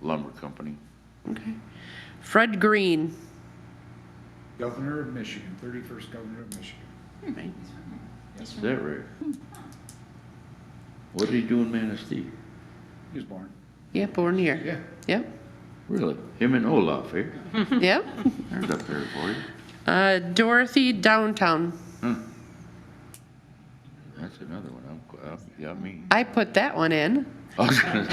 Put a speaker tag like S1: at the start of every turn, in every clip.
S1: lumber company.
S2: Okay. Fred Green.
S3: Governor of Michigan, 31st Governor of Michigan.
S2: Right.
S1: Is that right? What did he do in Manistee?
S3: He was born.
S2: Yeah, born here.
S3: Yeah.
S2: Yep,
S1: Really? Him and Olaf, eh?
S2: yep.
S1: There's up there for you.
S2: Uh, Dorothy Downtown.
S1: That's another one. I'm, I'm, you got me.
S2: I put that one in.
S1: I was gonna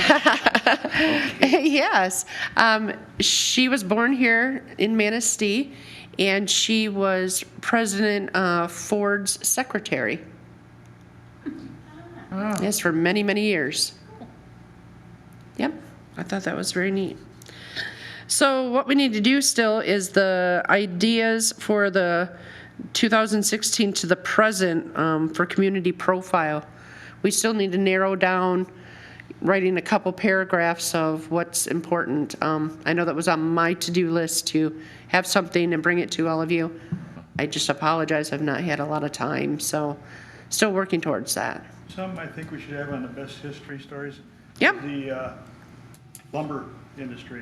S1: say,
S2: yes. Um, she was born here in Manistee, and she was President uh, Ford's secretary. Yes, for many, many years. Yep, I thought that was very neat. So, what we need to do still is the ideas for the 2016 to the present um, for community profile. We still need to narrow down writing a couple paragraphs of what's important. Um, I know that was on my to-do list to have something and bring it to all of you. I just apologize, I've not had a lot of time, so still working towards that.
S4: Some I think we should have on the best history stories.
S2: Yep.
S4: The uh, lumber industry.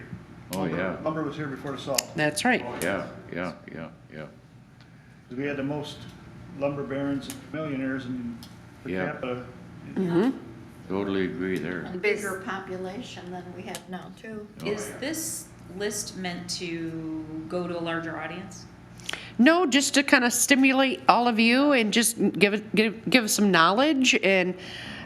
S1: Oh, yeah.
S4: Lumber was here before salt.
S2: That's right.
S1: Yeah, yeah, yeah, yeah.
S4: We had the most lumber barons and millionaires in per
S1: Yeah.
S4: capita.
S1: Totally agree there.
S5: And bigger population than we have now, too.
S6: Is this list meant to go to a larger audience?
S2: No, just to kind of stimulate all of you and just give it, give, give some knowledge. And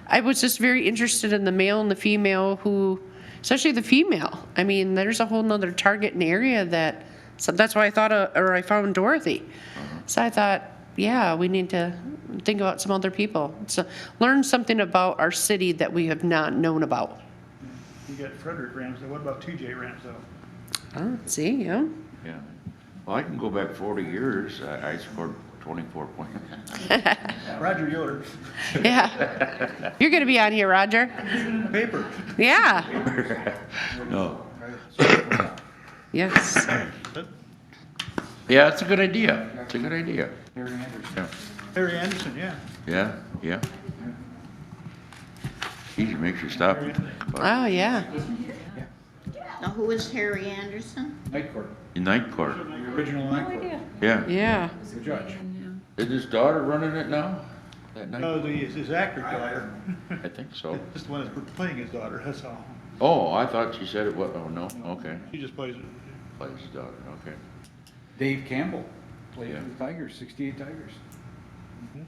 S2: I was just very interested in the male and the female who, especially the female. I mean, there's a whole nother target and area that, so that's why I thought, uh, or I found Dorothy. So I thought, yeah, we need to think about some other people. So learn something about our city that we have not known about.
S4: You got Frederick Ramsdale. What about TJ Ramsdale?
S2: Oh, see, yeah.
S1: Yeah. Well, I can go back forty years. I, I scored twenty-four points.
S4: Roger Yoder.
S2: Yeah. You're going to be on here, Roger.
S4: Paper.
S2: Yeah.
S1: No.
S2: Yes.
S1: Yeah, it's a good idea. It's a good idea.
S3: Harry Anderson.
S1: Yeah,
S4: Harry Anderson, yeah.
S1: yeah, yeah. Geez, it makes you stop. and think about
S2: Oh, yeah.
S5: Now, who is Harry Anderson?
S3: Night Court,
S1: it. Night court,
S3: the original Night Court,
S1: yeah.
S2: Yeah.
S3: the judge.
S1: Is his daughter running it now? That night?
S4: No, Oh, the, his actor daughter.
S1: I think so.
S4: Just the one that's playing his daughter, that's all.
S1: Oh, I thought she said it was, oh, no, okay.
S4: She just plays,
S1: Plays his daughter, okay.
S3: Dave Campbell, played
S1: Yeah.
S3: for the Tigers, 68 Tigers.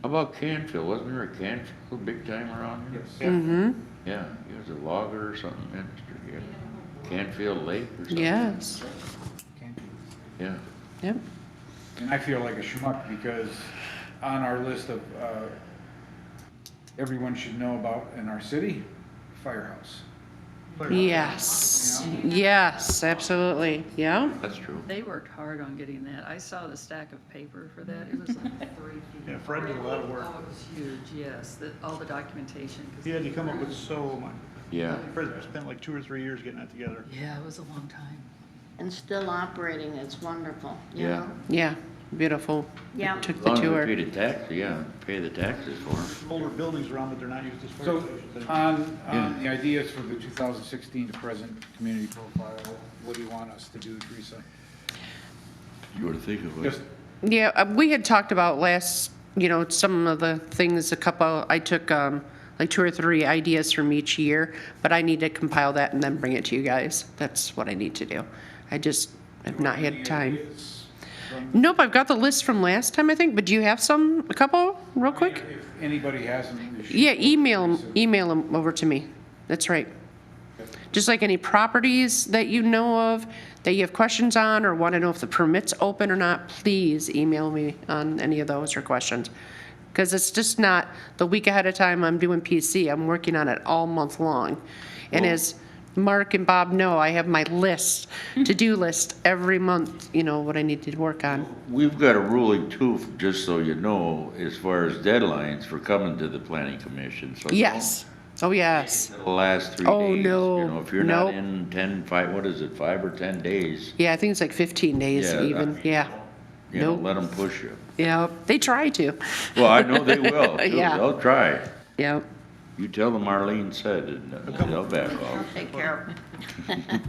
S1: How about Canfield? Wasn't there a Canfield big time around here?
S2: Mm-hmm.
S1: Yeah, he was a logger or something, minister, yeah. Canfield Lake or something.
S2: Yes.
S3: Campbell.
S1: Yeah.
S2: Yep.
S3: And I feel like a schmuck because on our list of, uh, everyone should know about in our city, Firehouse.
S2: Yes. Yes. Absolutely. Yeah.
S1: That's true.
S7: They worked hard on getting that. I saw the stack of paper for that. It was like three feet.
S4: Yeah, Fred did a lot of work.
S7: Oh, it was huge, yes, the, all the documentation. 'cause-
S4: he had to come up with so much.
S1: Yeah.
S4: Frederick spent like two or three years getting that together.
S7: Yeah, it was a long time.
S5: And still operating, it's wonderful, you
S1: Yeah.
S5: know?
S2: Yeah. Beautiful.
S5: Yeah.
S2: Took
S1: As
S2: the
S1: long as we
S2: tour.
S1: pay the tax, yeah, pay the taxes for them.
S4: older buildings around, but they're not used as fire
S3: So
S4: stations anymore.
S3: on, on the ideas for the 2016 to present community profile, what do you want us to do, Teresa?
S1: You were to think of
S3: Just
S1: it.
S2: Yeah. uh, We had talked about last, you know, some of the things, a couple, I took um, like two or three ideas from each year, but I need to compile that and then bring it to you guys. That's what I need to do. I just have not had time.
S3: Ideas
S2: Nope. I've got the list from last time, I think, but do you have some, a couple, real quick?
S3: If anybody has them. they should-
S2: Yeah, email 'em- email them over to me. That's right. Just like any properties that you know of, that you have questions on, or want to know if the permit's open or not, please email me on any of those or questions. Because it's just not the week ahead of time I'm doing PC, I'm working on it all month long.
S1: Oh.
S2: And as Mark and Bob know, I have my list, to-do list every month, you know, what I need to work on.
S1: We've got a ruling too, just so you know, as far as deadlines for coming to the planning commission, so.
S2: Yes, oh, yes,
S1: The last three days.
S2: Oh, no.
S1: You know, if you're not
S2: Nope.
S1: in ten, five, what is it, five or ten days,
S2: yeah, I think it's like 15 days
S1: Yeah, I
S2: even,
S1: mean,
S2: yeah.
S1: you know,
S2: Nope.
S1: let them push you.
S2: Yeah, they try to.
S1: Well, I know they will, too.
S2: Yeah.
S1: They'll try.
S2: Yep.
S1: You tell them Marlene said, and they'll back off.
S5: Take care of